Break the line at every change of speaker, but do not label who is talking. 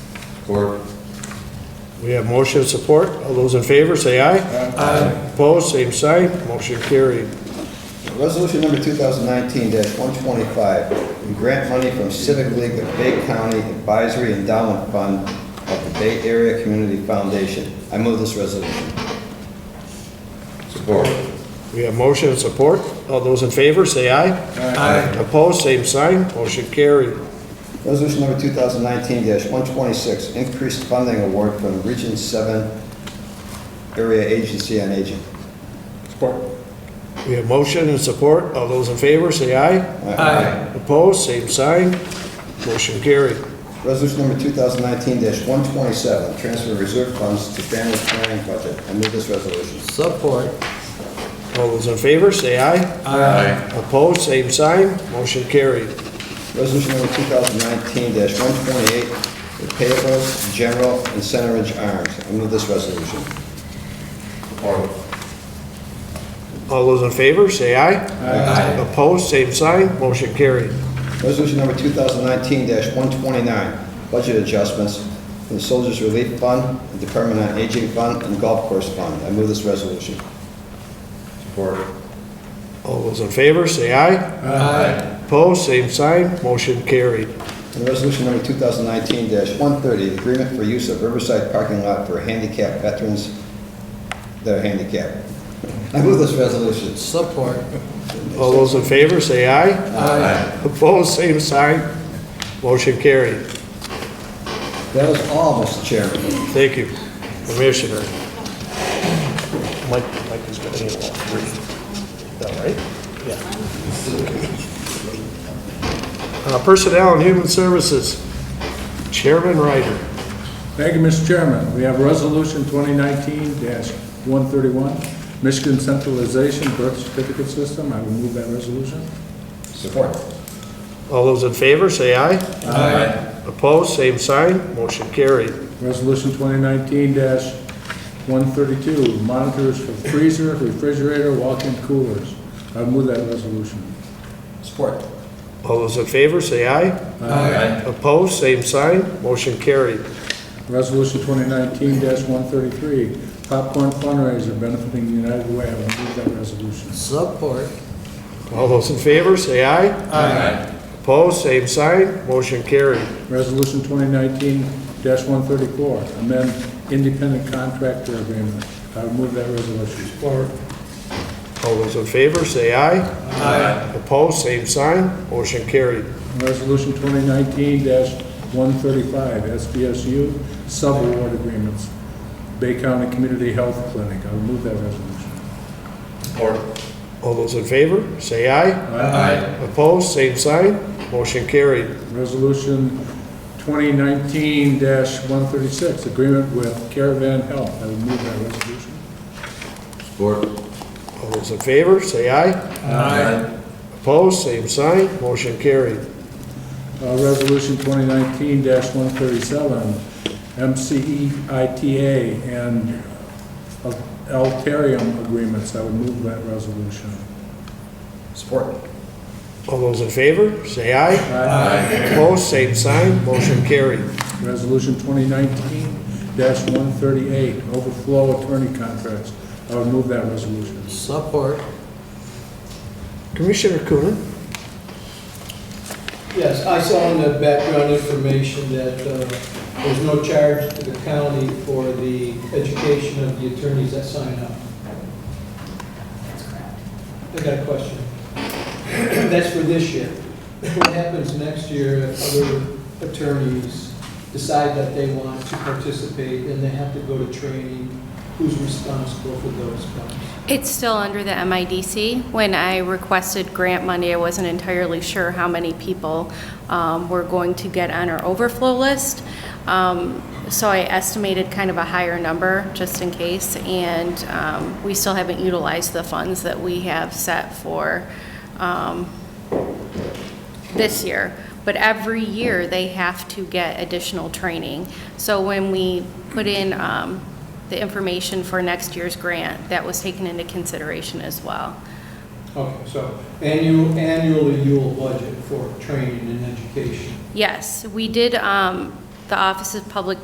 Support.
We have motion and support. All those in favor, say aye. Aye. Opposed, same sign. Motion carried.
Resolution number 2019-125, we grant money from Civic League of Bay County Advisory Endowment Fund of the Bay Area Community Foundation. I move this resolution. Support.
We have motion and support. All those in favor, say aye. Aye. Opposed, same sign. Motion carried.
Resolution number 2019-126, increased funding award from Region 7 Area Agency on Aging. Support.
We have motion and support. All those in favor, say aye.
Aye.
Opposed, same sign. Motion carried.
Resolution number 2019-127, transfer reserve funds to family planning budget. I move this resolution.
Support.
All those in favor, say aye.
Aye.
Opposed, same sign. Motion carried.
Resolution number 2019-128, the payables, general, and center edge arms. I move this resolution. Support.
All those in favor, say aye. Aye. Opposed, same sign. Motion carried.
Resolution number 2019-129, budget adjustments for the Soldiers Relief Fund, the Department on Aging Fund, and Golf Course Fund. I move this resolution. Support.
All those in favor, say aye.
Aye.
Opposed, same sign. Motion carried.
And resolution number 2019-130, agreement for use of Riverside parking lot for handicapped veterans that are handicapped. I move this resolution.
Support.
All those in favor, say aye.
Aye.
Opposed, same sign. Motion carried.
That was all, Mr. Chairman.
Thank you, Commissioner. Mike, Mike is going to need all three. Is that right? Yeah. Uh, Personnel and Human Services, Chairman Ryder.
Thank you, Mr. Chairman. We have Resolution 2019-131, Michigan Centralization Birth Certificate System. I will move that resolution.
Support.
All those in favor, say aye.
Aye.
Opposed, same sign. Motion carried.
Resolution 2019-132, monitors for freezer, refrigerator, walk-in coolers. I will move that resolution.
Support.
All those in favor, say aye.
Aye.
Opposed, same sign. Motion carried.
Resolution 2019-133, popcorn fundraiser benefiting United Way. I will move that resolution.
Support.
All those in favor, say aye.
Aye.
Opposed, same sign. Motion carried.
Resolution 2019-134, amend independent contractor agreement. I will move that resolution.
All those in favor, say aye.
Aye.
Opposed, same sign. Motion carried.
Resolution 2019-135, SBSU, subaward agreements, Bay County Community Health Clinic. I will move that resolution.
All those in favor, say aye.
Aye.
Opposed, same sign. Motion carried.
Resolution 2019-136, agreement with Caravan Health. I will move that resolution.
Support.
All those in favor, say aye.
Aye.
Opposed, same sign. Motion carried.
Uh, Resolution 2019-137, E MCEITA and Alterium agreements. I will move that resolution.
Support.
All those in favor, say aye. Opposed, same sign. Motion carried.
Resolution 2019-138, overflow attorney contracts. I would move that resolution.
Support.
Commissioner Coonan.
Yes, I saw in the background information that uh, there's no charge to the county for the education of the attorneys that sign up. That's correct. I got a question. That's for this year. What happens next year if other attorneys decide that they want to participate and they have to go to training? Who's responsible for those funds?
It's still under the MIDC. When I requested grant money, I wasn't entirely sure how many people um, were going to get on our overflow list. Um, So I estimated kind of a higher number, just in case, and um, we still haven't utilized the funds that we have set for um, this year, but every year they have to get additional training. So when we put in um, the information for next year's grant, that was taken into consideration as well.
Okay, so annual- annually you will budget for training and education.
Yes, we did, um, the Office of Public